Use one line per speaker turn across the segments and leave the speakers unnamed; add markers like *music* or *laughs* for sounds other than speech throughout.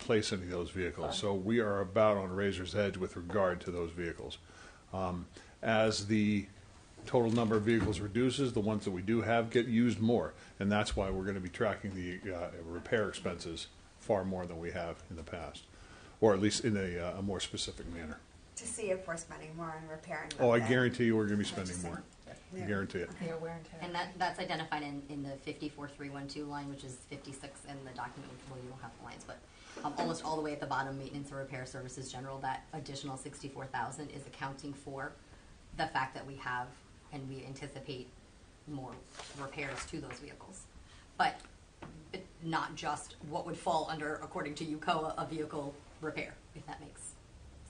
replace any of those vehicles. So we are about on razor's edge with regard to those vehicles. Um, As the total number of vehicles reduces, the ones that we do have get used more. And that's why we're going to be tracking the uh, repair expenses far more than we have in the past, or at least in a, uh, a more specific manner.
to see if we're spending more on repairing.
Oh, I
than-
guarantee you, we're going to be spending more. I guarantee it.
They are wear and tear.
And that, that's identified in, in the fifty-four, three, one, two line, which is fifty-six in the document, which, well, you don't have the lines, but um, almost all the way at the bottom, maintenance and repair services general, that additional sixty-four thousand is accounting for the fact that we have and we anticipate more repairs to those vehicles. But it- not just what would fall under, according to UCOA, a vehicle repair, if that makes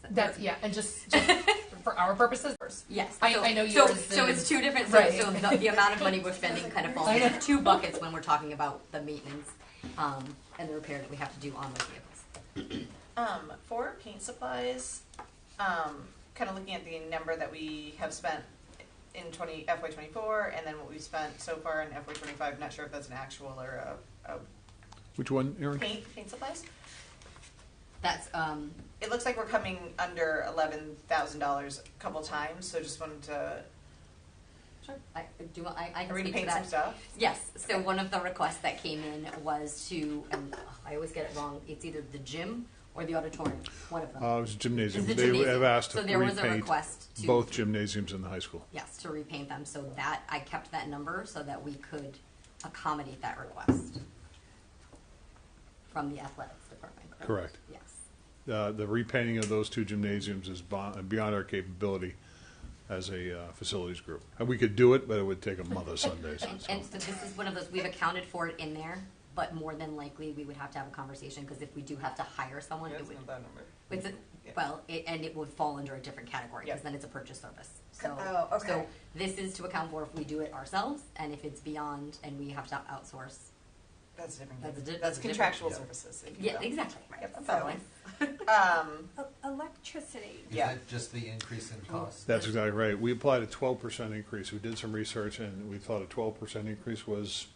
sense.
That's yeah, and just, just
*laughs*
for our purposes.
Yes.
I,
so,
I know yours.
So,
is-
so it's two different. So,
Right.
so the, the amount of money
*laughs*
we're spending kind of falls
I know.
into two buckets when we're talking about the maintenance um, and the repair that we have to do on those vehicles.
Um, for paint supplies, um, kind of looking at the number that we have spent in twenty FY twenty four, and then what we've spent so far in FY twenty five. Not sure if that's an actual or a, a
Which one, Aaron?
paint paint supplies.
That's um,
It looks like we're coming under eleven thousand dollars a couple times. So just wanted to
sure. I do. you want- I, I
are
can
we gonna
speak to
paint some
that.
stuff.
Yes. So one of the requests that came in was to, and ugh, I always get it wrong. It's either the gym or the auditorium. One of them.
Uh, it was gymnasium.
Is the
They
gymnasium.
have asked to
So there was a
repaint
request to-
both gymnasiums in the high school.
Yes, to repaint them. So that I kept that number so that we could accommodate that request from the athletics department.
Correct.
Yes.
Uh, the repainting of those two gymnasiums is bon- beyond our capability as a uh, facilities group. And we could do it, but it would take a month of Sundays.
And,
*laughs*
so.
and so this is one of those, we've accounted for it in there, but more than likely, we would have to have a conversation, because if we do have to hire someone,
Yeah,
it
it's
would,
not that number.
it's, a-
Yeah.
well, it, and it would fall under a different category, because
Yeah.
then it's a purchase service. So,
Oh, okay.
so this is to account for if we do it ourselves, and if it's beyond, and we have to outsource.
That's a different.
That's a di-
that's
that's a different-
contractual
yeah.
services. if you
Yeah,
will.
exactly.
Yep, that's
So
how it
it's-
Um,
E- Electricity.
Is
Yeah.
that just the increase in cost?
That's exactly right. We applied a twelve percent increase. We did some research and we thought a twelve percent increase was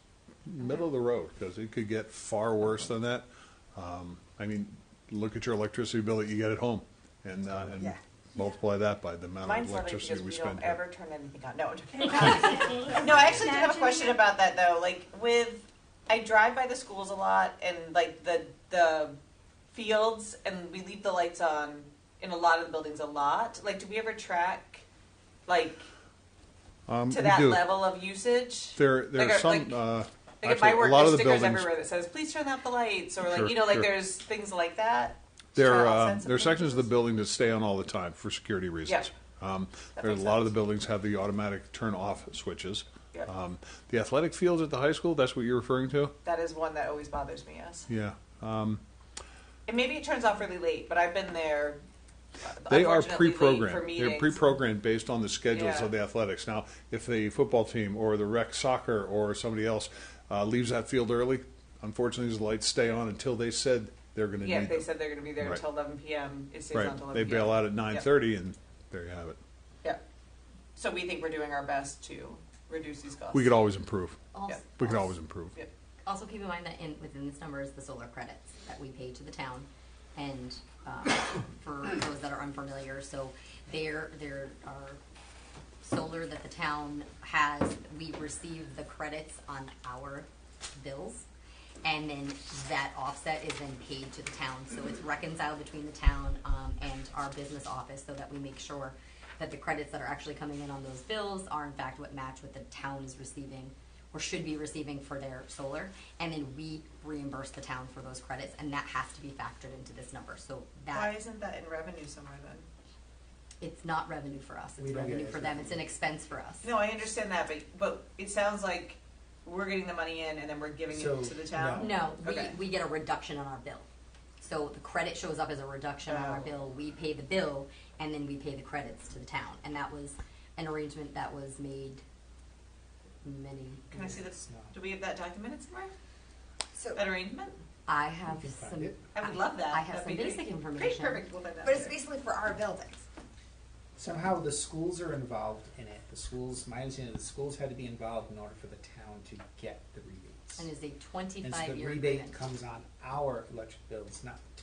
middle of the road because it could get far worse than that. Um, I mean, look at your electricity bill that you get at home and, uh, and
Yeah.
multiply that by the amount of
Mine's funny because
uh, electricity
we
we
don't
spend.
ever
here.
turn anything on. No, I'm joking. Um, no, I actually do have a question about that though. Like with, I drive by the schools a lot and like the the fields, and we leave the lights on in a lot of the buildings a lot. Like, do we ever track, like
Um,
to
we
that
do.
level of usage?
There, there
Like
are
a-
some,
like-
uh,
Like if
actually,
my
a
work,
lot of
there's
the
stickers
buildings,
everywhere that says "Please turn out the lights," or like
Sure,
you know, like
sure.
there's things like that. to
There
try to
are,
offset
um,
some
there are sections of the
things?
building that stay on all the time for security reasons. Um,
That
there are a
makes
lot of the
sense.
buildings have the automatic turn off switches.
Yeah.
Um, the athletic fields at the high school, that's what you're referring to?
That is one that always bothers me. Yes.
Yeah.
And maybe it turns off really late, but I've been there. uh,
They are
unfortunately, late for
pre-programmed. They're
meetings.
pre-programmed based on the schedules
Yeah.
of the athletics. Now, if the football team or the rec soccer or somebody else uh, leaves that field early, unfortunately, the lights stay on until they said they're going to
Yeah,
need
they
them.
said they're going to be there
Right.
until 11 p.m. It stays on until
right.
11
They
p.m.
bail out at 9:30, and there you have it.
Yeah. So we think we're doing our best to reduce these costs.
We could always improve.
also-
Yeah.
We could always improve.
Yeah.
Also, keep in mind that in, within this number is the solar credits that we pay to the town, and um, for those that are unfamiliar, so there there are solar that the town has. We receive the credits on our bills, and then that offset is then paid to the town. So it's reconciled between the town um, and our business office, so that we make sure that the credits that are actually coming in on those bills are in fact what match what the town is receiving or should be receiving for their solar, and then we reimburse the town for those credits, and that has to be factored into this number. So
Why
that,
isn't that in revenue somewhere then?
it's not revenue for us,
We
it's
don't get
revenue
it.
for them, it's an expense for us.
No, I understand that, but but it sounds like we're getting the money in and then we're giving
So,
it to the town.
No, we,
Okay.
we get a reduction on our bill. So the credit shows up as a reduction on our
Oh.
bill, we pay the bill, and then we pay the credits to the town, and that was an arrangement that was made many.
Can I see this? Do we have that documented somewhere?
So,
That arrangement?
I have
can find
some.
it.
I would love that.
I have
That'd
some
be great.
basic
Great,
information.
perfect. We'll find that.
but it's basically for our buildings.
Somehow the schools are involved in it. The schools, my understanding is the schools had to be involved in order for the town to get the rebates.
And it's a
And so
twenty-five
the
year
rebate
agreement.
comes on our electric bills, not